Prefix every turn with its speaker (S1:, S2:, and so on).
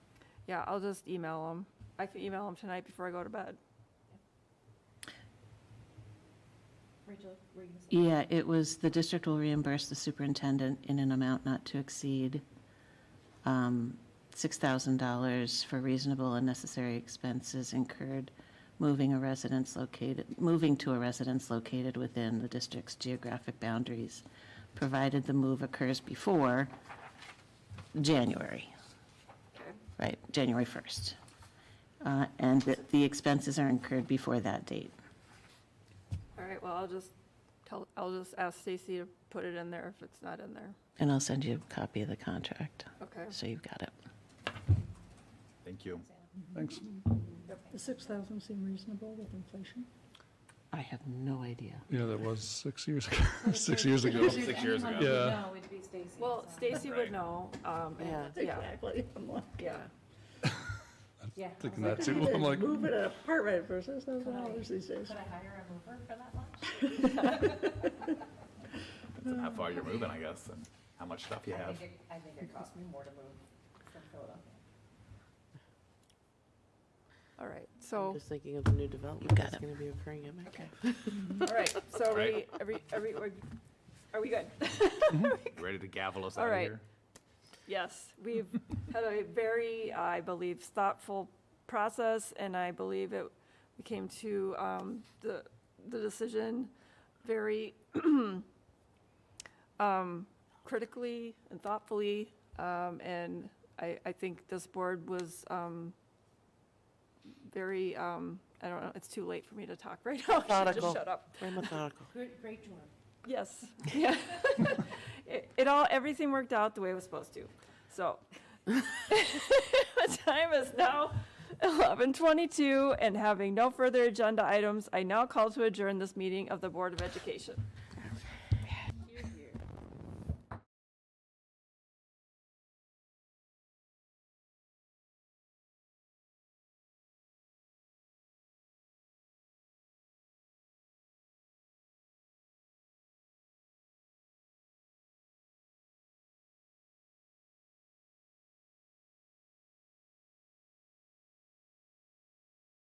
S1: Yeah, I'll just email them. I can email them tonight before I go to bed.
S2: Rachel, were you gonna say?
S3: Yeah, it was, the district will reimburse the superintendent in an amount not to exceed um, $6,000 for reasonable and necessary expenses incurred moving a residence located, moving to a residence located within the district's geographic boundaries, provided the move occurs before January,
S1: Okay.
S3: right, January 1st. Uh, And that the expenses are incurred before that date.
S1: All right, well, I'll just tell, I'll just ask Stacy to put it in there if it's not in there.
S3: And I'll send you a copy of the contract,
S1: Okay.
S3: so you've got it.
S4: Thank you.
S5: Thanks.
S6: The 6,000 seem reasonable with inflation?
S3: I have no idea.
S5: Yeah, that was six years ago, six years ago.
S4: Six years ago.
S5: Yeah.
S2: No, it'd be Stacy.
S1: Well,
S2: so-
S1: Stacy would
S4: Right.
S1: know, um, and,
S6: Exactly.
S1: yeah,
S6: I'm like,
S1: yeah.
S2: Yeah. I
S5: Thinking
S2: was
S5: that
S2: like,
S5: too. I'm like,
S6: Move it apart right for $6,000 these days.
S2: Could I hire a mover for that much?
S4: Depends on how far you're moving, I guess, and how much stuff you
S2: I
S4: have.
S2: think it- I think it cost me more to move from Philadelphia.
S1: All right,
S7: I'm
S1: so,
S7: just thinking of the new development
S3: You've Oh, got
S7: that's
S3: it.
S7: going to be occurring at my
S1: okay. All right, so are we,
S4: Right.
S1: are we, are we, we're- are we good?
S4: Ready to gavel us
S1: All
S4: out of
S1: right.
S4: here?
S1: Yes, we've had a very, I believe, thoughtful process, and I believe it, we came to um, the, the decision very um, critically and thoughtfully, um, and I, I think this board was um, very, um, I don't know, it's too late for me to talk right now. I should
S7: Methodical.
S1: just shut up.
S7: Very methodical.
S2: Good, great job.
S1: Yes, yeah. It it all, everything worked out the way it was supposed to, so. The time is now 11:22, and having no further agenda items, I now call to adjourn this meeting of the Board of Education.